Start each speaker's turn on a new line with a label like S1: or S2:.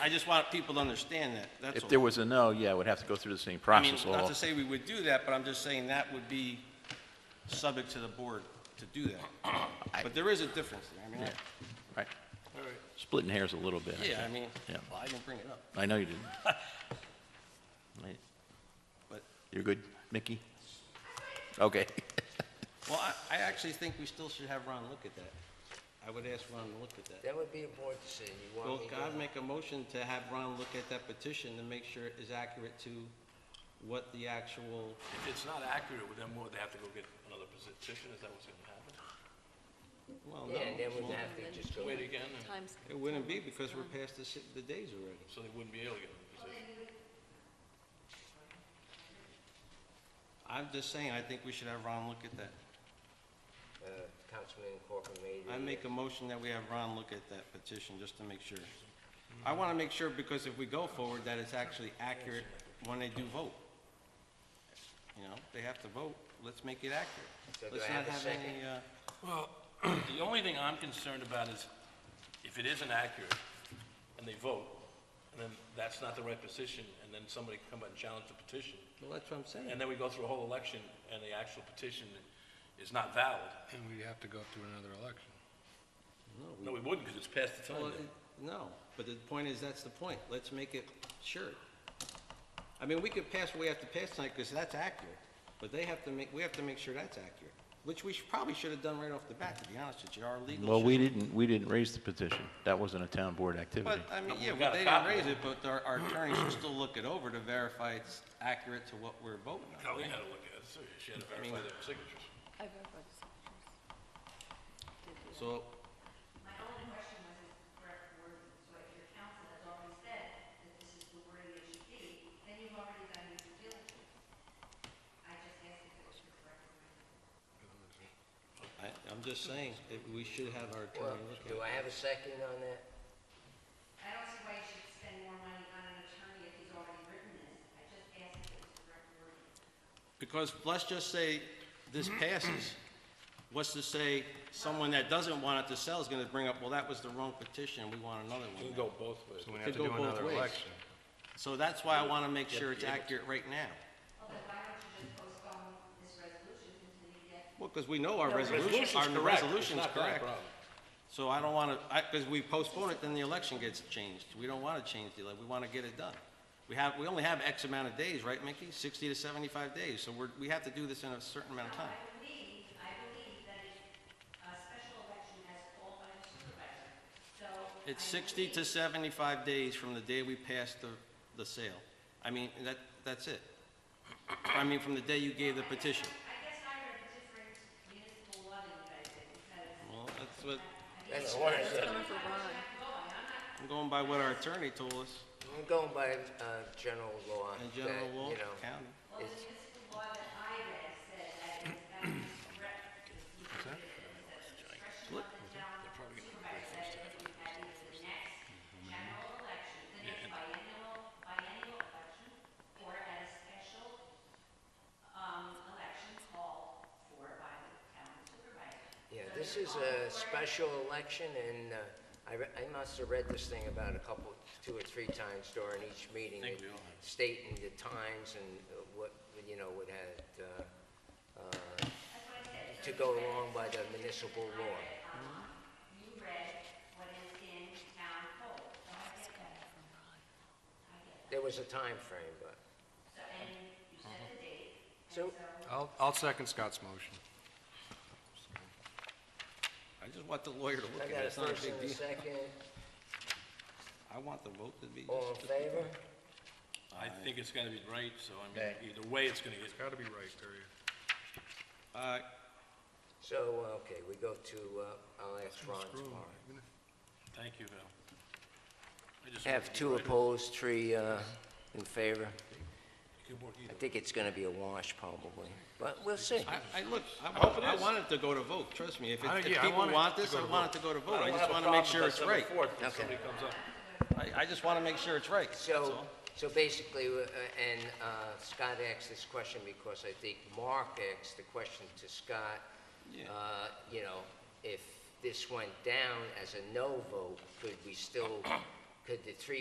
S1: I just want people to understand that, that's
S2: If there
S1: all.
S2: was a no, yeah, it would have to go through the same
S1: I mean,
S2: process.
S1: not
S2: all-
S1: to say we would do that, but I'm just saying that would be subject to the board to do that. But there is a difference there, I mean, I-
S2: Right. Splitting hairs a little bit. I
S1: yeah, I
S2: think.
S1: mean,
S2: Yeah.
S1: well, I didn't bring it up,
S2: I know you didn't. Right.
S1: but,
S2: You're good, Mickey? Okay.
S1: well, I, I actually think we still should have Ron look at that. I would ask Ron to look at that.
S3: That would be a board decision. You
S1: Well,
S3: want me
S1: can I
S3: to...
S1: make a motion to have Ron look at that petition to make sure it is accurate to what the actual,
S4: If it's not accurate, well, then would they have to go get another petition? Is that what's gonna happen?
S1: well, no.
S3: Yeah, and then we'd have to just go...
S4: Wait again, and
S5: Times,
S1: It wouldn't be because we're past the, si- the days already.
S4: so they wouldn't be able to get another petition?
S1: I'm just saying, I think we should have Ron look at that.
S3: uh, Councilman Corcoran made
S1: I make a motion that we have Ron look at that petition, just to make sure. I want to make sure, because if we go forward, that it's actually accurate when they do vote. You know, they have to vote, let's make it
S3: So
S1: accurate.
S3: do
S1: Let's
S3: I
S1: not
S3: have a
S1: have
S3: second?
S1: any, uh,
S4: Well, the only thing I'm concerned about is if it isn't accurate and they vote, and then that's not the right position, and then somebody can come and challenge the petition,
S1: well, that's what I'm
S4: and
S1: saying.
S4: then we go through a whole election and the actual petition is not valid.
S6: And we'd have to go through another election.
S4: No, we wouldn't, because it's past the
S1: Well,
S4: time.
S1: it- No, but the point is, that's the point, let's make it sure. I mean, we could pass what we have to pass tonight, because that's accurate, but they have to make, we have to make sure that's accurate, which we should- probably should have done right off the bat, to be honest with you, our legal.
S2: Well,
S1: should-
S2: we didn't, we didn't raise the petition. That wasn't a town board activity.
S1: But, I mean,
S4: But
S1: yeah,
S4: we
S1: well,
S4: got a
S1: they didn't
S4: copy.
S1: raise it, but our, our attorney should still look it over to verify it's accurate to what we're voting on.
S4: Colleen had to look at it, too. She had to verify their signatures.
S5: I've ever.
S1: So,
S7: My only question was is correct wording, so if your council has already said that this is the wording it should be, then you've already done your due diligence. I just asked if it was the correct wording.
S1: I, I'm just saying, that we should have our
S3: Well,
S1: attorney look at
S3: do
S1: it.
S3: I have a second on that?
S7: I don't see why you should spend more money on an attorney if he's already written this. I just asked if it was the correct wording.
S1: Because let's just say this passes, what's to say someone that doesn't want it to sell is gonna bring up, well, that was the wrong petition, we want another
S4: You can
S1: one.
S4: go both ways.
S6: So we
S1: Could
S6: have to
S1: go
S6: do
S1: both
S6: another
S1: ways.
S6: election.
S1: So that's why I wanna make sure it's accurate right now.
S7: Well, then why don't you just postpone this resolution until you get
S1: Well, because we know our resolution,
S4: Resolution's
S1: our
S4: correct. It's
S1: resolution's
S4: not that
S1: correct.
S4: problem.
S1: So I don't wanna, I, because we postpone it, then the election gets changed. We don't wanna change the, ele- we wanna get it done. We have, we only have X amount of days, right, Mickey? Sixty to seventy-five days, so we're, we have to do this in a certain amount of time.
S7: I believe, I believe that a special election as called by the supervisor. So
S1: It's sixty to seventy-five days from the day we pass the, the sale. I mean, that, that's it. I mean, from the day you gave the petition.
S7: I guess I heard a different municipal law than you guys did because
S1: Well, that's what,
S3: That's what I said.
S5: Coming for Ron.
S1: I'm going by what our attorney told us
S3: I'm going by uh, general law.
S1: in
S3: that,
S1: general law,
S3: you know,
S1: county.
S3: it's-
S7: the law that I read said that it was that was correct.
S1: Look,
S7: General election, the next biennial, biennial election, or at a special, um, election called for by the town supervisor.
S3: Yeah, this is a special election, and uh, I re- I must have read this thing about a couple, two or three times during each meeting. Stating the times and uh, what, you know, what had, uh, uh, to go along by the municipal law.
S7: You read what is in town code, so I get that.
S3: There was a time frame, but,
S7: So, and you set the date,
S3: so,
S6: I'll, I'll second Scott's motion.
S1: I just want the lawyer to look
S3: I
S1: at it,
S3: got a
S1: it's not a
S3: first
S1: big
S3: and a
S1: deal.
S3: second.
S1: I want the vote to be
S3: All
S1: just
S3: in favor?
S4: I think it's gotta be right, so I mean,
S3: Okay.
S4: either way, it's gonna get
S6: Got to be right, period.
S1: Uh,
S3: So, uh, okay, we go to, uh, I'll ask Ron tomorrow.
S4: Thank you, Val. I just wanted
S3: Have
S4: to
S3: two
S4: write it.
S3: opposed, three uh, in favor.
S4: You can work either
S3: I think it's going to be a wash probably, but we'll see.
S1: I, I, look, I want, I want it to go to vote, trust me. If, it-
S6: I-
S1: if
S6: yeah, I
S1: people
S6: want it
S1: want
S6: to
S1: this,
S6: go
S1: I
S6: to
S1: want it to go to vote. I
S4: don't
S1: just
S4: have a
S1: want to make
S4: problem
S1: sure
S4: if
S1: it's
S4: that's number
S1: right.
S4: four, if
S3: Okay.
S4: somebody comes up.
S1: I, I just want to make sure it's right, that's
S3: So,
S1: all.
S3: so basically, uh, and uh, Scott asked this question because I think Mark asked the question to Scott.
S1: Yeah.
S3: uh, You know, if this went down as a no vote, could we still, could the three